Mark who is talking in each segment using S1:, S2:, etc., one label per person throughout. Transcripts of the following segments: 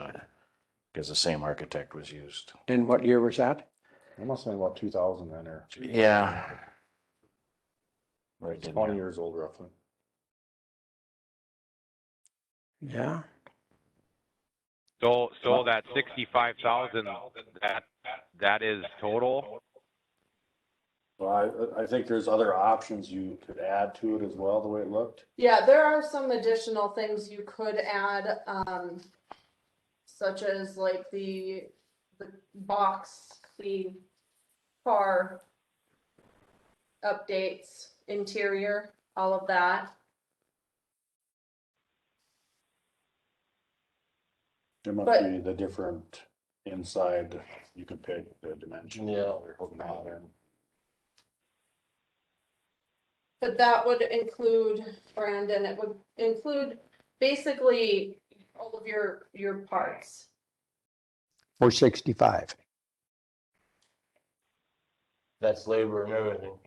S1: uh, because the same architect was used.
S2: And what year was that?
S3: It must have been about two thousand then or
S1: Yeah. Right in
S3: twenty
S1: there.
S3: years old roughly.
S2: Yeah,
S4: So, so that sixty-five thousand, that, that is total?
S3: Well, I, I think there's other options you could add to it as well, the way it looked.
S5: Yeah, there are some additional things you could add, um, such as like the, the box, the car updates, interior, all of that.
S3: There must
S5: But-
S3: be the different inside, you could pick the dimension.
S1: Yeah.
S5: But that would include, Brandon, it would include basically all of your, your parts.
S2: or sixty-five.
S6: That's labor and everything.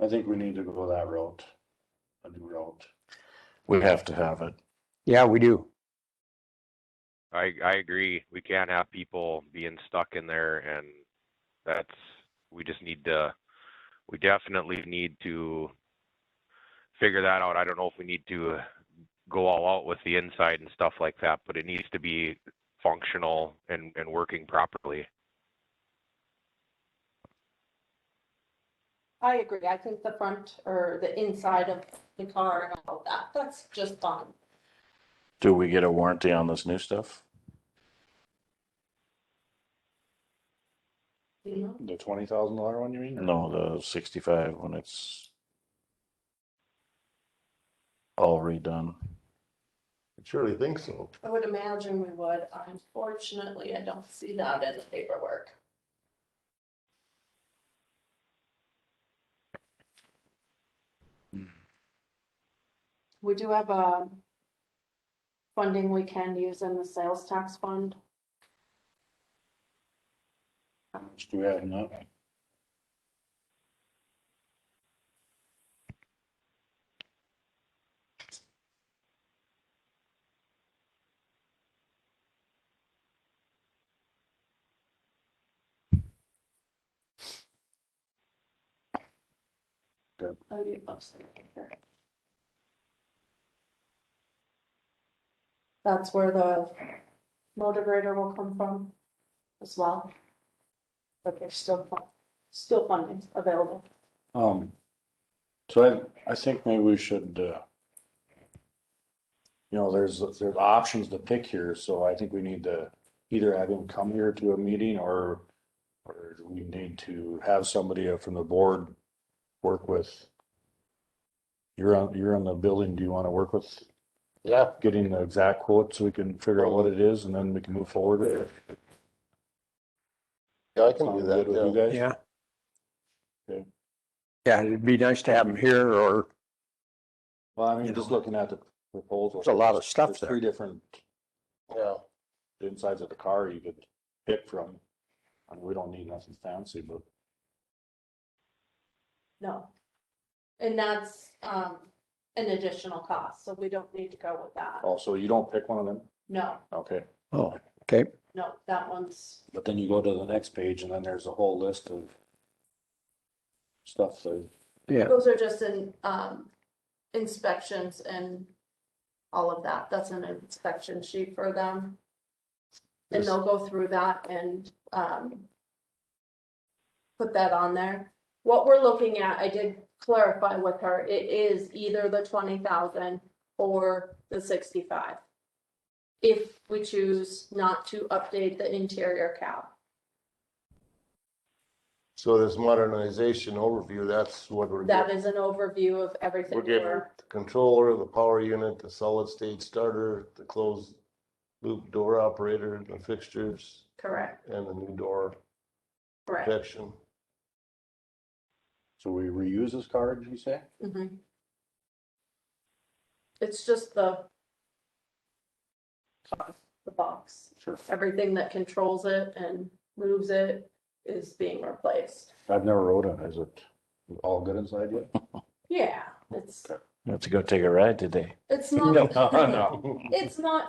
S3: I think we need to go that route. A new route.
S1: We have to have it.
S2: Yeah, we do.
S4: I, I agree. We can't have people being stuck in there and that's, we just need to, we definitely need to figure that out. I don't know if we need to go all out with the inside and stuff like that, but it needs to be functional and, and working properly.
S5: I agree, I think the front or the inside of the car and all of that, that's just fun.
S1: Do we get a warranty on this new stuff?
S5: you know?
S3: The twenty thousand dollar one, you mean? or-
S1: No, the sixty-five when it's all redone.
S6: I Surely think so.
S5: I would imagine we would, unfortunately, I don't see that in the paperwork. We do have a funding we can use in the sales tax fund.
S3: Do we have enough?
S5: Oh, you upside down here. That's where the motivator will come from as well. But there's still, fun- still funding available.
S3: Um, so I, I think maybe we should, uh, you know, there's, there's options to pick here, so I think we need to either have him come here to a meeting or, or we need to have somebody from the board work with. You're on, you're on the building, do you want to work with
S6: Yeah,
S3: getting the exact quote so we can figure out what it is and then we can move forward with it?
S6: yeah, I can do
S3: Sound good with you
S6: that.
S3: guys?
S2: Yeah.
S3: Okay.
S2: Yeah, it'd be nice to have them here or,
S3: Well, I mean, just looking at the proposal.
S2: There's a lot of stuff
S3: there's
S2: there.
S3: Three different
S6: Yeah, yeah.
S3: the insides of the car you could pick from. And we don't need nothing fancy, but
S5: No. And that's, um, an additional cost, so we don't need to go with that.
S3: also you don't pick one of them,
S5: No,
S3: okay?
S2: oh, okay.
S5: no, that one's,
S3: But then you go to the next page and then there's a whole list of stuff that
S2: Yeah,
S5: those are just in, um, inspections and all of that. That's an inspection sheet for them. And they'll go through that and, um, put that on there. What we're looking at, I did clarify with her, it is either the twenty thousand or the sixty-five. If we choose not to update the interior cab.
S6: So this modernization overview, that's what we're
S5: That
S6: getting.
S5: is an overview of everything
S6: We're getting
S5: we're
S6: the controller, the power unit, the solid state starter, the closed loop door operator, the fixtures
S5: correct,
S6: and the new door
S5: correct.
S6: protection.
S3: So we reuse this car, did you say?
S5: Mhm. It's just the the box,
S3: Sure.
S5: everything that controls it and moves it is being replaced.
S3: I've never rode it. Is it all good inside yet?
S5: Yeah, it's,
S1: You have to go take a ride today.
S5: it's not,
S3: No, no.
S5: it's not